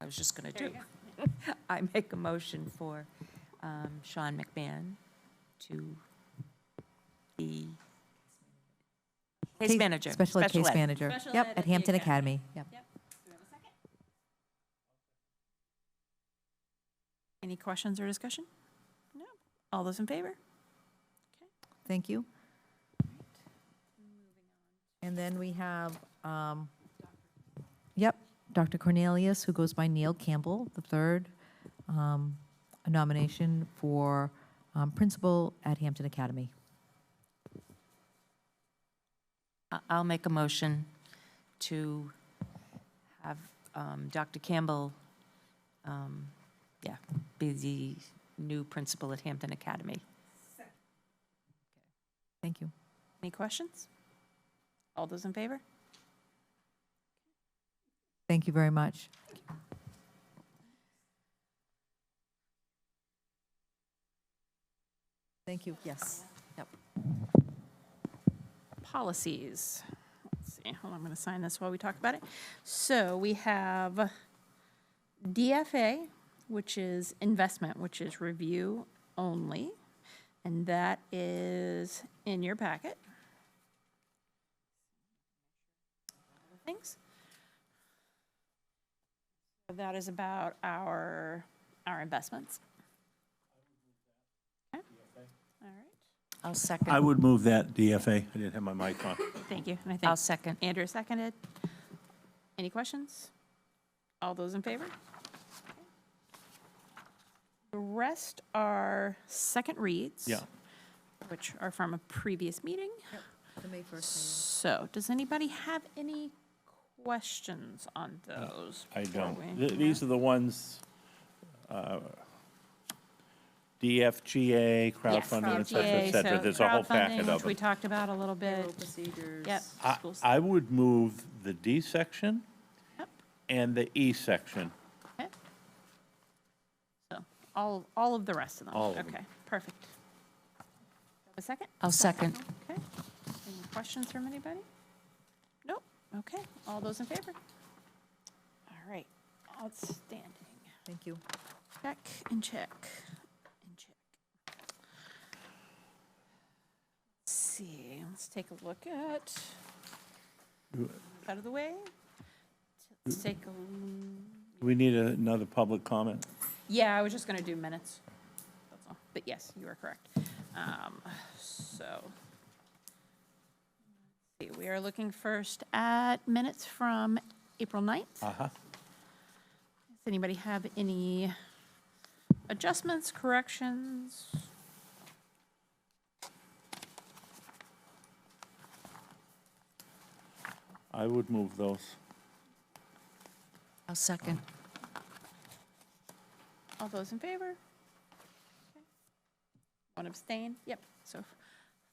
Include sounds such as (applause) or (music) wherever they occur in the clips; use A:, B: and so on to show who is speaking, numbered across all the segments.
A: I was just going to do. (laughs) I make a motion for um, Sean McMahon to be case manager.
B: Special ed case manager.
A: Special ed
B: Yep, at Hampton Academy. Yep.
C: Any questions or discussion? No. All those in favor?
B: Thank you. And then we have, um, yep, Dr. Cornelius, who goes by Neil Campbell, the third, um, a nomination for um, principal at Hampton Academy.
A: I- I'll make a motion to have um, Dr. Campbell, um, yeah, be the new principal at Hampton Academy.
B: Thank you.
C: Any questions? All those in favor?
B: Thank you very much. Thank you, yes. Yep.
C: Policies. Let's see, hold on, I'm going to sign this while we talk about it. So we have DFA, which is investment, which is review only. And that is in your packet. Thanks. That is about our, our investments. Okay. All right,
A: I'll second.
D: I would move that DFA. I didn't have my mic on.
C: thank you. And I think
D: Uh,
A: I'll second.
C: Andrew seconded. Any questions? All those in favor? The rest are second reads.
D: (laughs) Yeah.
C: Which are from a previous meeting.
B: The May 1st
C: So does anybody have any questions on those?
D: I
C: before
D: don't.
C: we-
D: Th- These are the ones, uh, DFGA,
C: Yes.
D: crowdfunding, et cetera, et
C: GA,
D: cetera.
C: so
D: There's a whole
C: crowdfunding,
D: packet
C: which
D: of
C: We
D: them.
C: talked about a little bit. Yep.
D: I,
C: schools.
D: I would move the D section
C: Yep.
D: and the E section.
C: Okay. So all, all of the rest of them?
D: All of them.
C: Okay, perfect. A second?
A: I'll second.
C: Okay. Any questions from anybody? Nope. Okay, all those in favor? All right, outstanding.
B: Thank you.
C: Check and check and check. Let's see, let's take a look at, out of the way. Let's take a, l-
D: We need another public comment.
C: yeah, I was just gonna do minutes. That's all. But yes, you are correct. Um, so. see, We are looking first at minutes from April 9th.
D: Uh-huh.
C: Does anybody have any adjustments, corrections?
D: I would move those.
A: I'll second.
C: All those in favor? Okay. One abstain? Yep, so f-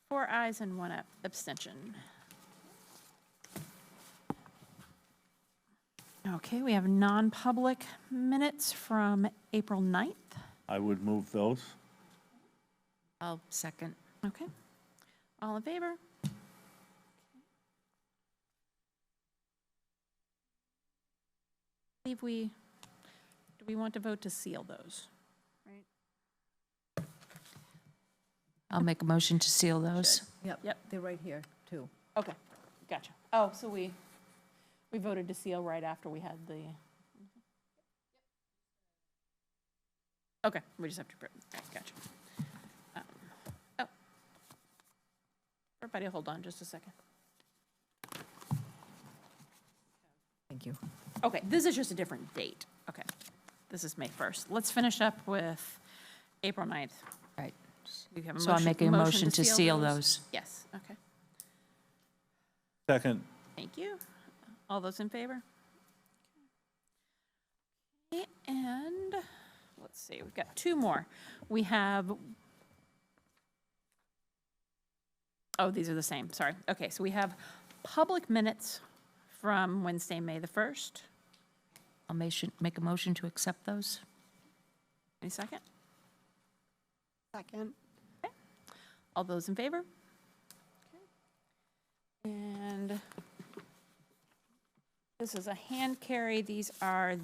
C: four ayes and one ab- abstention. Okay, we have non-public minutes from April 9th.
D: I would move those.
A: I'll second.
C: Okay. All in favor? Believe we, do we want to vote to seal those?
A: I'll make a motion to seal those.
C: Yep.
B: they're right here, too.
C: Okay, gotcha. Oh, so we, we voted to seal right after we had the. Okay, we just have to, approve. gotcha. Um, Oh. Everybody hold on just a second.
B: Thank you.
C: Okay, this is just a different date. Okay, this is May 1st. Let's finish up with April 9th.
A: Right.
C: We have a
A: So I'm
C: motion-
A: making a motion to seal those.
C: Yes, okay.
D: Second,
C: Thank you. All those in favor? Okay, And, let's see, we've got two more. We have, oh, these are the same, sorry. Okay, so we have public minutes from Wednesday, May the 1st.
A: I'll motion, make a motion to accept those.
C: Any second? Second. All those in favor? And this is a hand carry. These are